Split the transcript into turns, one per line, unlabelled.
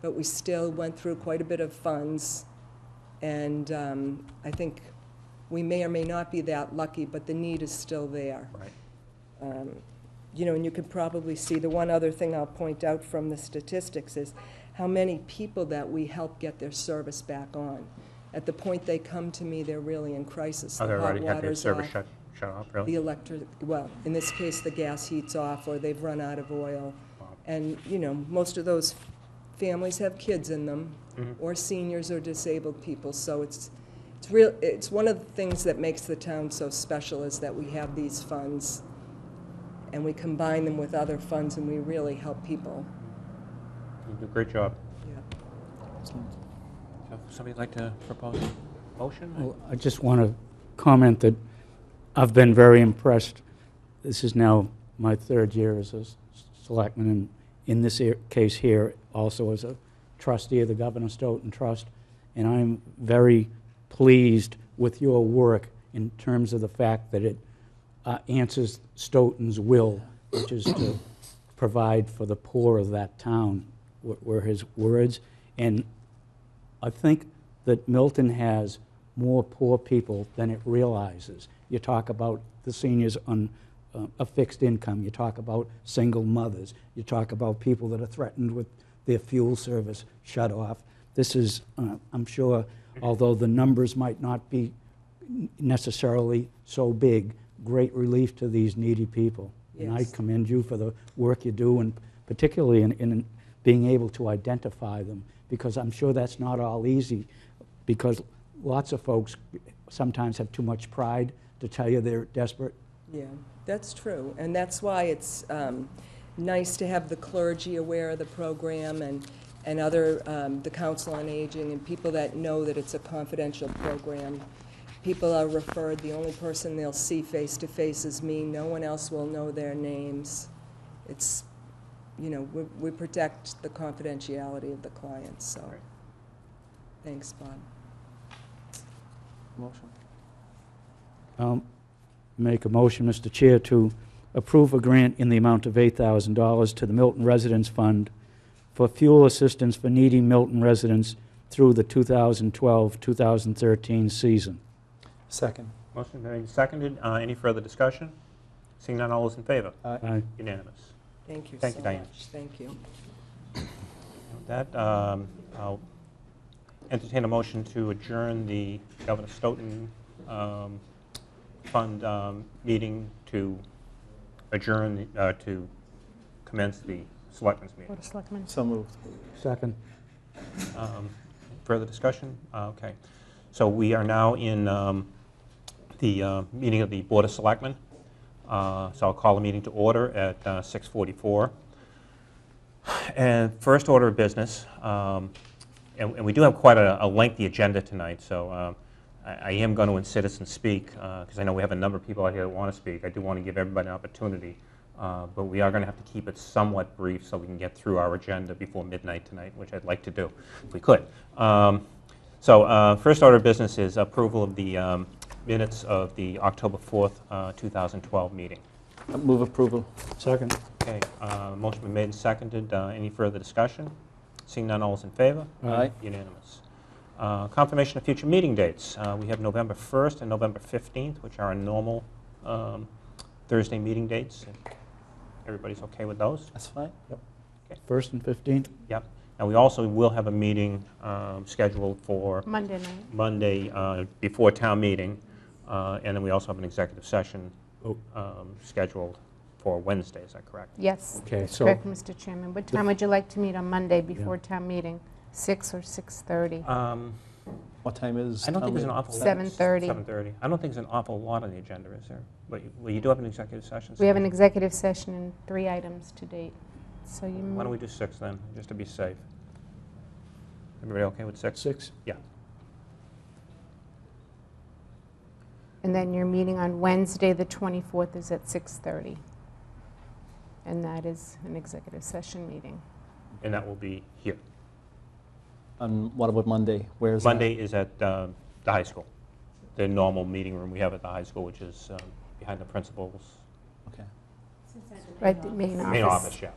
but we still went through quite a bit of funds. And um, I think we may or may not be that lucky, but the need is still there.
Right.
You know, and you could probably see, the one other thing I'll point out from the statistics is how many people that we help get their service back on. At the point they come to me, they're really in crisis.
Oh,
The
they
hot
already had their
water's
service
off.
shut, shut off,
the
really?
electric, well, in this case, the gas heat's off, or they've run out of oil. And, you know, most of those families have kids in them, or seniors or disabled people, so it's, it's real, it's one of the things that makes the town so special is that we have these funds, and we combine them with other funds, and we really help people.
You do a great job.
Yeah.
So, Somebody like to propose a motion?
Well, I just want to comment that I've been very impressed. This is now my third year as a s- selectman, and in this ear- case here, also as a trustee of the Governor Stoughton Trust. And I'm very pleased with your work in terms of the fact that it uh, answers Stoughton's will, which is to provide for the poor of that town, were- were his words. And I think that Milton has more poor people than it realizes. You talk about the seniors on uh, a fixed income, you talk about single mothers, you talk about people that are threatened with their fuel service shut off. This is, uh, I'm sure, although the numbers might not be n- necessarily so big, great relief to these needy people. And I
Yes.
commend you for the work you do, and particularly in, in being able to identify them, because I'm sure that's not all easy, because lots of folks sometimes have too much pride to tell you they're desperate.
Yeah, that's true, and that's why it's um, nice to have the clergy aware of the program and, and other, um, the Council on Aging, and people that know that it's a confidential program. People are referred, the only person they'll see face-to-face is me, no one else will know their names. It's, you know, we we protect the confidentiality of the clients, so.
Right.
Thanks, Bob.
Motion.
Um, Make a motion, Mr. Chair, to approve a grant in the amount of $8,000 to the Milton Residents Fund for fuel assistance for needy Milton residents through the 2012-2013 season.
Second.
Motion made, seconded. Uh, Any further discussion? Seeing none, all those in favor?
Aye.
Unanimous.
Thank you so much.
Thank you, Diane.
Thank you.
With That, um, I'll entertain a motion to adjourn the Governor Stoughton um, Fund um, meeting to adjourn, the- uh, to commence the Selectmen's meeting.
Board of Selectmen.
So moved.
Second.
Um, Further discussion? Uh, Okay. So we are now in um, the uh, meeting of the Board of Selectmen. Uh, So I'll call the meeting to order at uh, 6:44. And first order of business, um, and and we do have quite a a lengthy agenda tonight, so um, I I am going to in citizen speak, because I know we have a number of people out here that want to speak. I do want to give everybody an opportunity, uh, but we are going to have to keep it somewhat brief so we can get through our agenda before midnight tonight, which I'd like to do, if we could. Um, So uh, first order of business is approval of the um, minutes of the October 4th, uh, 2012 meeting. Uh,
Move approval.
Second.
Okay, uh, motion been made and seconded. Uh, Any further discussion? Seeing none, all is in favor?
Aye.
Unanimous. Uh, Confirmation of future meeting dates. Uh, We have November 1st and November 15th, which are our normal um, Thursday meeting dates. If Everybody's okay with those?
That's fine. Yep.
First and 15th?
Yep. And we also will have a meeting um, scheduled for
Monday night.
Monday uh, before town meeting, Uh, and then we also have an executive session
Oh.
um, scheduled for Wednesday, is that correct?
Yes.
Okay,
that's
so-
Correct, Mr. Chairman. What time would you like to meet on Monday before town meeting? Six or 6:30?
Um,
What time is?
I don't think
town
there's an
meeting?
awful lot.
7:30.
7:30. I don't think there's an awful lot on the agenda, is there? But you- Well, you do have an executive session. so
We have an executive session and three items to date. So you,
Why don't we
m-
do 6 then, just to be safe? Everybody okay with 6?
Six.
and then your meeting on Wednesday, the 24th, is at 6:30. And that is an executive session meeting.
And that will be here.
And what about Monday? Where is that?
Monday is at um, the high school, the normal meeting room we have at the high school, which is um, behind the principal's
Okay.
Right, the main office.
main office, yeah.